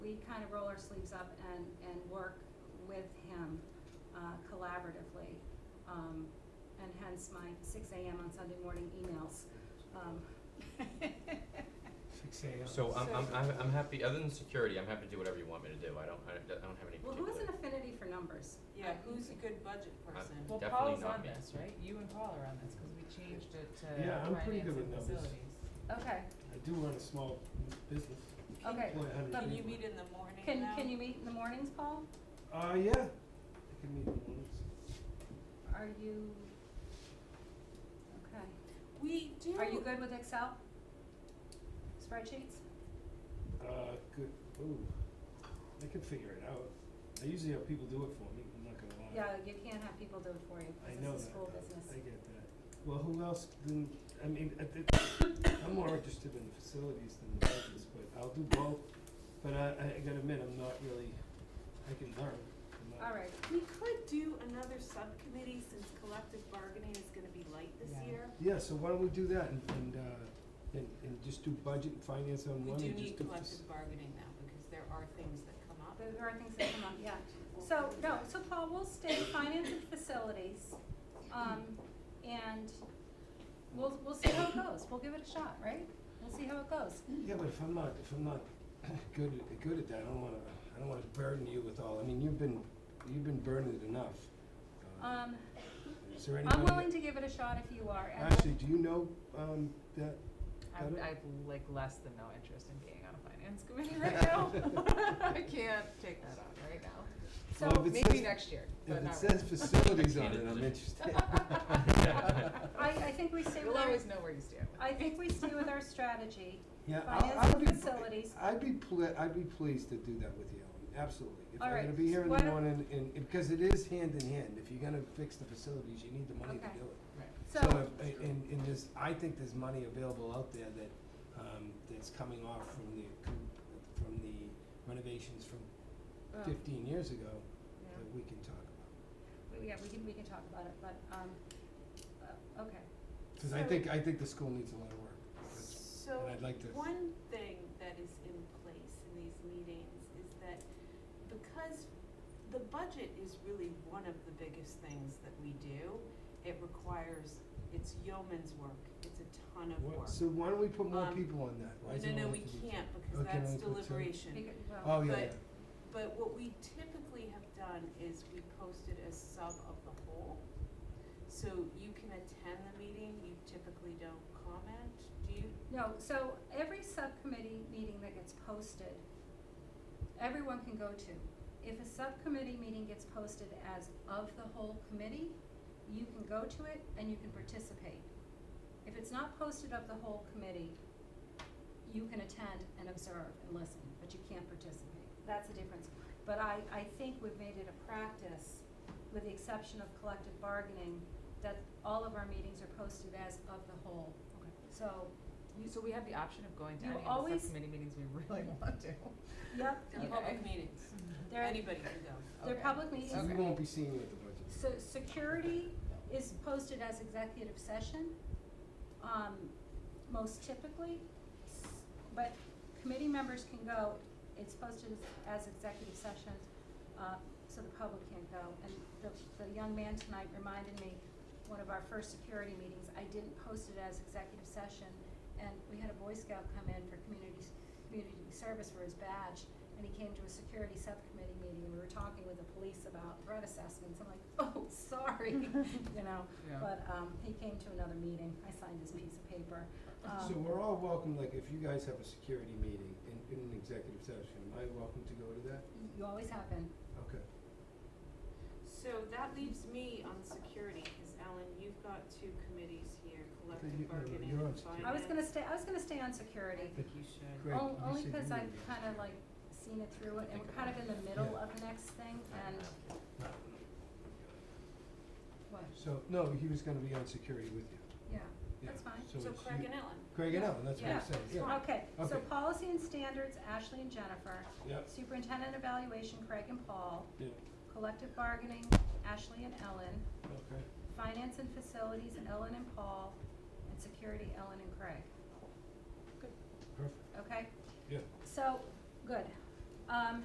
our sleeves up and, and work with him uh, collaboratively. Um, And hence my six AM on Sunday morning emails. Um, Six AM. So I'm, I'm, So- I'm, I'm happy, other than security, I'm happy to do whatever you want me to do, I don't, I don't I don't have any Well, particular. who has an affinity for numbers? Uh, Yeah, who's a good budget person? Uh, Well, Definitely Paul's not on me. this, right? You and Paul are on this, cause we changed it to Yeah, I'm finance pretty good with and facilities. numbers. Okay, I do run a small business, okay. employ a hundred Can you people. meet in the morning Can, now? can you meet in the mornings, Paul? Uh, yeah, I can meet in the mornings. Are you, okay. We do. Are you good with Excel? Spreadsheets? Uh, good, ooh, I can figure it out. I usually have people do it for me, I'm not gonna lie. Yeah, you can't have people do it for you, 'cause I it's know a that, school though. business. I get that. Well, who else than, I mean, I thi- I'm more interested in the facilities than the budgets, but I'll do both. But I, I gotta admit, I'm not really, I can learn. I'm not- All right, We could do another subcommittee since collective bargaining is gonna be light this Yeah. year. Yeah, so why don't we do that and, and, uh, and, and just do budget and finance on We one do and just need do. fac- collective bargaining now because there are things that come up. there are things that come up, yeah. So, no, so Paul, we'll stay finance and facilities, um, and we'll, we'll see how it goes, we'll give it a shot, right? We'll see how it goes. Yeah, but if I'm not, if I'm not good, at- good at that, I don't wanna, I don't wanna burden you with all, I mean, you've been, you've been burdened enough. Uh, Um, Is there anybody? I'm willing to give it a shot if you are, and Actually, do you know, um, that, Got I'm, it? I've like less than no interest in being on a finance committee right now. I can't take that on right now. so, Well, if it Maybe says- next year, if but it not right says facilities on it, Candidate I'm position. interested. I, I think we stay You'll with our, always know where you stand with I me. think we stay with our strategy, Yeah, Finance I'll, I'll and be, facilities. I'd be ple- I'd be pleased to do that with you, Ellen, absolutely. If All I'm right, gonna be here in why the don't- morning, and, and, because it is hand in hand, if you're gonna fix the facilities, you need the money to do Okay. it. Right. so, if- a- and, and there's, I think there's money available out there that, um, that's coming off from the, com- from the renovations from Oh. um, fifteen years ago, yeah. that we can talk about. We- Yeah, we can, we can talk about it, but, um, uh, okay. Cause I So- think, I think the school needs a lot of work, That's- So, and I'd like to- one thing that is in place in these meetings is that because the budget is really one of the biggest things that we do, it requires, it's yeoman's work, it's a ton of What- work. so why don't we put more Um, people on that? Why does No, it no, no, we only have to be two? can't Oh, because can that's only put two? deliberation. Because, well, Oh, yeah, but- yeah. But what we typically have done is we posted a sub of the whole. So you can attend the meeting, you typically don't comment, do you? no, so every subcommittee meeting that gets posted, everyone can go to. If a subcommittee meeting gets posted as of the whole committee, you can go to it and you can participate. If it's not posted of the whole committee, you can attend and observe and listen, but you can't participate. That's the difference. But I, I think we've made it a practice, with the exception of collective bargaining, that all of our meetings are posted as of the whole. Okay. So, you, So we have the option of going to You any of the always- subcommittee meetings we really want to. yep, They're Okay. public meetings, there, anybody can go. They're Okay. public meetings. So we Okay. won't be seeing you at the budget. so security is posted as executive session, um, most typically. s- But committee members can go, it's posted as as executive session, uh, so the public can't go. And the, the young man tonight reminded me, one of our first security meetings, I didn't post it as executive session. And we had a Boy Scout come in for community, community service for his badge, and he came to a security subcommittee meeting, and we were talking with the police about threat assessments. I'm like, oh, sorry, you know? Yeah. But, um, he came to another meeting, I signed his piece of paper. So Um, we're all welcome, like, if you guys have a security meeting in, in an executive session, am I welcome to go to that? You always have been. Okay. So that leaves me on security, cause Alan, you've got two committees here, you- collective no, bargaining you're on and security. finance. I was gonna stay, I was gonna stay on I security. think you should. Great. on- you Only said cause you I've were gonna- kinda like seen it through it, and Think we're kind of in the middle Yeah. of the next thing, and what, So, no, he was gonna be on security with you. yeah, Yeah, that's fine. So it's Craig you- and Ellen. Craig and Yeah. Ellen, that's what Yeah. I said, yeah, Okay, so Okay. policy and standards, Ashley and Jennifer. yeah, Superintendent evaluation, Craig and Paul. yeah, Collective bargaining, Ashley and Ellen. okay. Finance and facilities, Ellen and Paul. And security, Ellen and Craig. Perfect, Okay? yeah. So, good. Um,